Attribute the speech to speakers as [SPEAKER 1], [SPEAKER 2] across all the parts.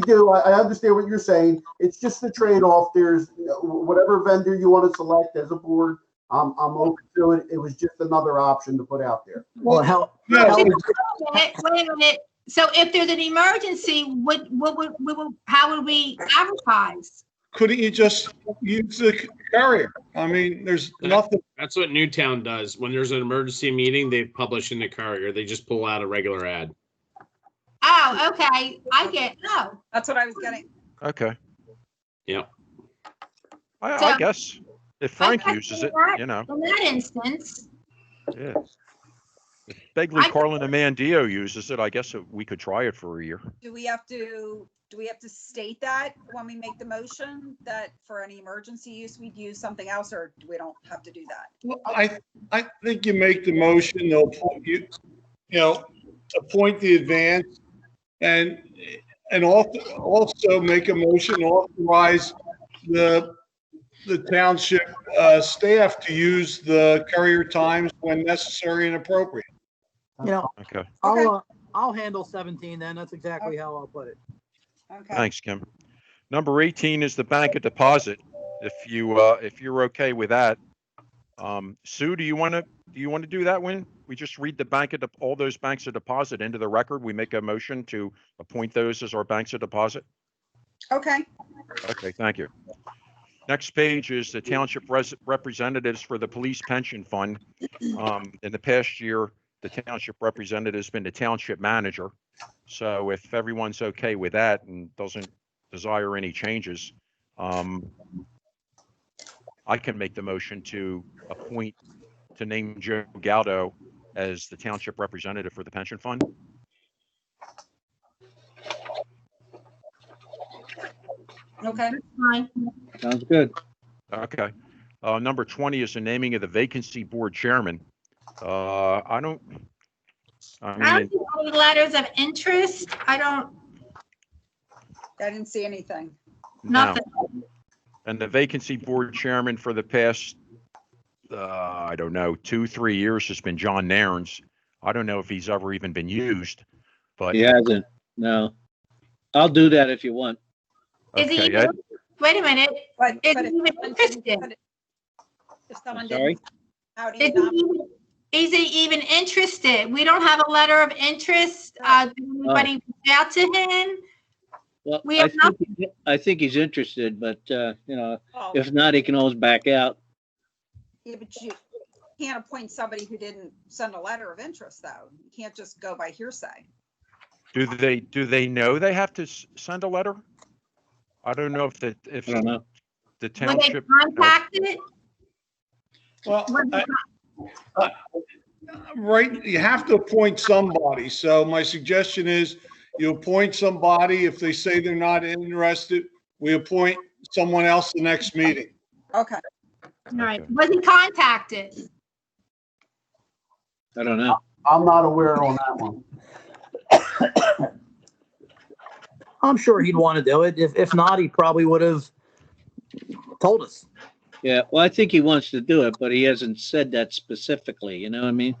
[SPEAKER 1] do. I, I understand what you're saying. It's just the trade-off. There's you know, whatever vendor you want to select as a board. I'm, I'm open to it. It was just another option to put out there.
[SPEAKER 2] Well, how,
[SPEAKER 3] No,
[SPEAKER 2] how
[SPEAKER 3] it-
[SPEAKER 2] would-
[SPEAKER 4] Wait a minute, wait a minute. So if there's an emergency, what, what, would we would how would we advertise?
[SPEAKER 3] couldn't you just use the carrier? I mean, there's nothing,
[SPEAKER 5] That's what Newtown does. When there's an emergency meeting, they publish in the courier. They just pull out a regular ad.
[SPEAKER 4] Oh, okay, I get, oh,
[SPEAKER 6] That's what I was getting.
[SPEAKER 7] Okay.
[SPEAKER 5] Yep.
[SPEAKER 7] I,
[SPEAKER 4] So-
[SPEAKER 7] I guess if
[SPEAKER 4] I
[SPEAKER 7] Frank
[SPEAKER 4] guess
[SPEAKER 7] uses
[SPEAKER 4] in
[SPEAKER 7] it,
[SPEAKER 4] that-
[SPEAKER 7] you know,
[SPEAKER 4] in that instance,
[SPEAKER 7] yeah. If Begley,
[SPEAKER 4] I-
[SPEAKER 7] Carlin, and Mandio uses it, I guess it- we could try it for a year.
[SPEAKER 6] Do we have to, do we have to state that when we make the motion that for any emergency use, we'd use something else or we don't have to do that?
[SPEAKER 3] I, I think you make the motion, they'll, appoint you, you know, appoint the advance and, and also, also make a motion to authorize the, the township, uh, staff to use the courier times when necessary and appropriate.
[SPEAKER 2] you know,
[SPEAKER 7] Okay,
[SPEAKER 6] Okay.
[SPEAKER 2] I'll, uh, I'll handle 17 then. That's exactly how I'll put it.
[SPEAKER 6] Okay.
[SPEAKER 7] thanks, Kim. Number 18 is the bank of deposit. If you, uh, if you're okay with that. Um, Sue, do you want to, do you want to do that one? We just read the bank of, dep- all those banks of deposit into the record. We make a motion to appoint those as our banks of deposit?
[SPEAKER 6] Okay,
[SPEAKER 7] Okay, thank you. Next page is the township res- representatives for the police pension fund. Um, in the past year, the township representative's been the township manager. So if everyone's okay with that and doesn't desire any changes, um, I can make the motion to appoint, to name Joe Galdo as the township representative for the pension fund.
[SPEAKER 6] okay.
[SPEAKER 4] fine.
[SPEAKER 8] Sounds good.
[SPEAKER 7] Okay. Uh, number twenty is the naming of the vacancy board chairman. Uh, I don't.
[SPEAKER 4] I
[SPEAKER 7] I
[SPEAKER 4] don't
[SPEAKER 7] mean,
[SPEAKER 4] see any letters of interest. I don't,
[SPEAKER 6] I didn't see anything.
[SPEAKER 7] no.
[SPEAKER 4] nothing.
[SPEAKER 7] And the vacancy board chairman for the past, uh, I don't know, two, three years has been John Nairns. I don't know if he's ever even been used, but.
[SPEAKER 8] He hasn't. No. I'll do that if you want.
[SPEAKER 4] Is he,
[SPEAKER 7] okay,
[SPEAKER 4] even-
[SPEAKER 7] I-
[SPEAKER 4] wait a minute,
[SPEAKER 6] But.
[SPEAKER 4] It's
[SPEAKER 6] but if
[SPEAKER 4] even
[SPEAKER 6] someone didn't-
[SPEAKER 4] interested.
[SPEAKER 6] If someone
[SPEAKER 8] I'm sorry?
[SPEAKER 6] didn't. How do
[SPEAKER 4] is
[SPEAKER 6] you
[SPEAKER 4] he,
[SPEAKER 6] not?
[SPEAKER 4] even- is he even interested? We don't have a letter of interest. Uh, did anybody reach out to him?
[SPEAKER 8] Well,
[SPEAKER 4] We
[SPEAKER 8] I
[SPEAKER 4] have not-
[SPEAKER 8] think, he- I think he's interested, but, uh, you know,
[SPEAKER 6] Oh,
[SPEAKER 8] if not, he can always back out.
[SPEAKER 6] Yeah, but you can't appoint somebody who didn't send a letter of interest though. You can't just go by hearsay.
[SPEAKER 7] Do they, do they know they have to s- send a letter? I don't know if the, if
[SPEAKER 8] I don't know.
[SPEAKER 7] the
[SPEAKER 4] Were they
[SPEAKER 7] township.
[SPEAKER 4] contacted?
[SPEAKER 3] Well,
[SPEAKER 4] Were they
[SPEAKER 3] I- Right, you have to appoint somebody, so my suggestion is you appoint somebody, if they say they're not interested, we appoint someone else the next meeting.
[SPEAKER 6] Okay,
[SPEAKER 4] All right,
[SPEAKER 7] Okay.
[SPEAKER 4] was he contacted?
[SPEAKER 8] I don't know.
[SPEAKER 1] I'm not aware on that one.
[SPEAKER 2] I'm sure he'd want to do it. If, if not, he probably would have told us.
[SPEAKER 8] Yeah, well, I think he wants to do it, but he hasn't said that specifically, you know what I mean?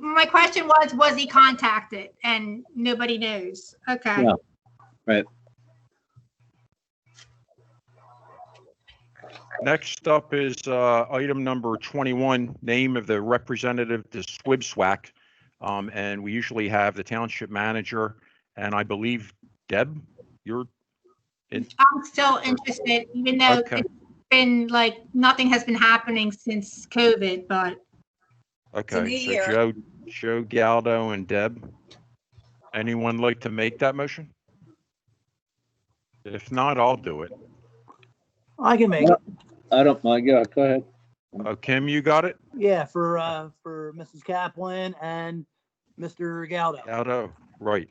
[SPEAKER 4] My question was, was he contacted? And nobody knows. Okay.
[SPEAKER 8] No. Right.
[SPEAKER 7] Next up is uh, item number 21, name of the representative to SWIBSWAC. Um, And we usually have the township manager, and I believe Deb, you're,
[SPEAKER 4] I'm still interested, even though
[SPEAKER 7] Okay.
[SPEAKER 4] it's been like, nothing has been happening since COVID, but
[SPEAKER 7] okay.
[SPEAKER 6] new
[SPEAKER 7] So
[SPEAKER 6] year.
[SPEAKER 7] Joe, Joe Galdo and Deb. Anyone like to make that motion? If not, I'll do it.
[SPEAKER 2] I can make it.
[SPEAKER 8] I don't mind. Yeah, go ahead.
[SPEAKER 7] Oh, Kim, you got it?
[SPEAKER 2] Yeah, for, uh, for Mrs. Kaplan and Mr. Galdo.
[SPEAKER 7] Galdo, right.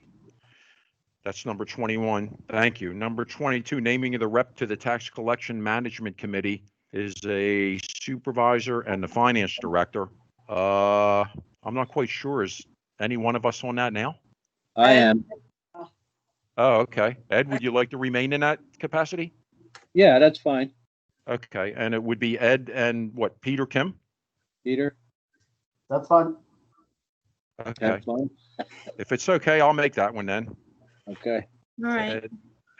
[SPEAKER 7] That's number 21. Thank you. Number 22, naming of the rep to the Tax Collection Management Committee is a supervisor and the finance director. Uh, I'm not quite sure. Is any one of us on that now?
[SPEAKER 8] I am.
[SPEAKER 7] Oh, okay. Ed, would you like to remain in that capacity?
[SPEAKER 8] Yeah, that's fine.
[SPEAKER 7] Okay, and it would be Ed and what, Peter Kim?
[SPEAKER 8] Peter,
[SPEAKER 1] That's fine.
[SPEAKER 7] Okay,
[SPEAKER 8] that's fine.
[SPEAKER 7] if it's okay, I'll make that one then.
[SPEAKER 8] Okay.
[SPEAKER 4] all right.
[SPEAKER 7] Ed-